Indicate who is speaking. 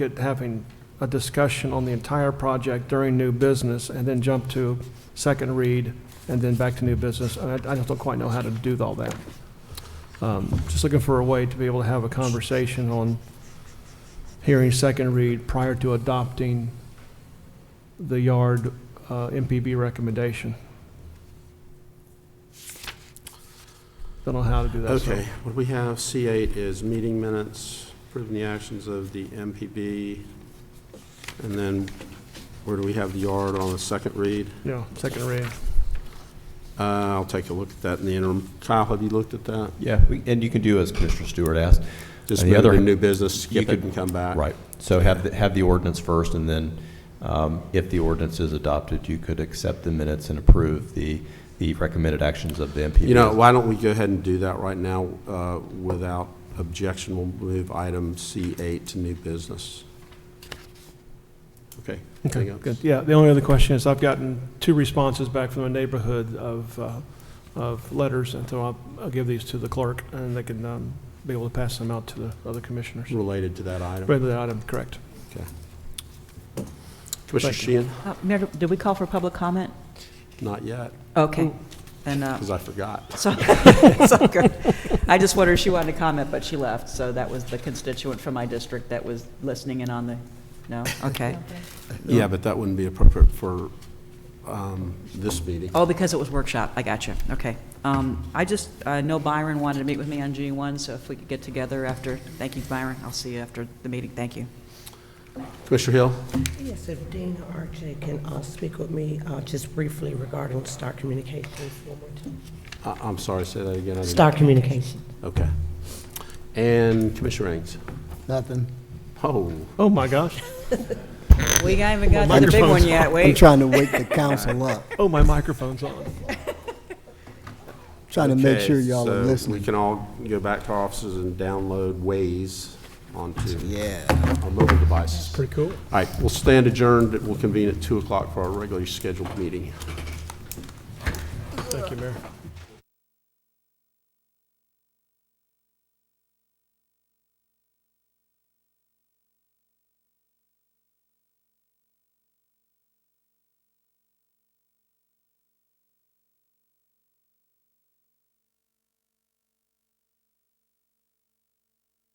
Speaker 1: at having a discussion on the entire project during new business and then jump to second read and then back to new business. And I, I just don't quite know how to do all that. Um, Just looking for a way to be able to have a conversation on hearing second read prior to adopting the yard uh, MPB recommendation. Don't know how to do that. so-
Speaker 2: Okay, what we have, C8 is meeting minutes, approving the actions of the MPB, and then where do we have the yard on the second read?
Speaker 1: Yeah, second read.
Speaker 2: Uh, I'll take a look at that in the interim. Kyle, have you looked at that?
Speaker 3: Yeah, we- and you can do as Commissioner Stewart asked.
Speaker 2: Just
Speaker 3: And the
Speaker 2: move it
Speaker 3: other-
Speaker 2: to new business,
Speaker 3: you
Speaker 2: skip it
Speaker 3: could-
Speaker 2: and come back.
Speaker 3: Right. So have, the- have the ordinance first, and then um, if the ordinance is adopted, you could accept the minutes and approve the, the recommended actions of the MPB.
Speaker 2: You know, why don't we go ahead and do that right now uh, without objection? We'll move item C8 to new business. Okay.
Speaker 1: Okay,
Speaker 2: anything else?
Speaker 1: good. Yeah, the only other question is, I've gotten two responses back from the neighborhood of, uh, of letters, and so I'll, I'll give these to the clerk, and they can um, be able to pass them out to the other commissioners.
Speaker 2: Related to that item.
Speaker 1: Rather than item, correct.
Speaker 2: Commissioner
Speaker 1: thank
Speaker 2: Sheehan?
Speaker 4: Uh, Mayor, did we call for public comment?
Speaker 2: Not yet,
Speaker 4: Okay, then, uh,
Speaker 2: because I forgot.
Speaker 4: so, it's okay. I just wondered if she wanted to comment, but she left, so that was the constituent from my district that was listening in on the, no, okay.
Speaker 2: Yeah, but that wouldn't be appropriate for um, this meeting.
Speaker 4: Oh, because it was workshop, I got you, okay. Um, I just, I know Byron wanted to meet with me on G1, so if we could get together after, thank you, Byron, I'll see you after the meeting, thank you.
Speaker 2: Commissioner Hill?
Speaker 5: Yes, if Dean or RJ can uh, speak with me uh, just briefly regarding Star Communications. one more time.
Speaker 2: I- I'm sorry, say that again. I didn't-
Speaker 5: Star Communications.
Speaker 2: Okay. And Commissioner Ings?
Speaker 6: Nothing.
Speaker 2: Oh,
Speaker 1: Oh, my gosh.
Speaker 4: We haven't got to the big one
Speaker 1: Microphone's
Speaker 4: yet,
Speaker 6: I'm
Speaker 4: wait.
Speaker 6: trying to wake the council up,
Speaker 1: Oh, my microphone's on.
Speaker 6: trying to make
Speaker 2: okay,
Speaker 6: sure y'all are
Speaker 2: so we
Speaker 6: listening.
Speaker 2: can all go back to our offices and download Waze onto
Speaker 6: Yeah.
Speaker 2: our mobile devices. All
Speaker 1: Pretty cool.
Speaker 2: right, we'll stand adjourned. We'll convene at 2 o'clock for our regularly scheduled meeting.
Speaker 1: Thank you, Mayor.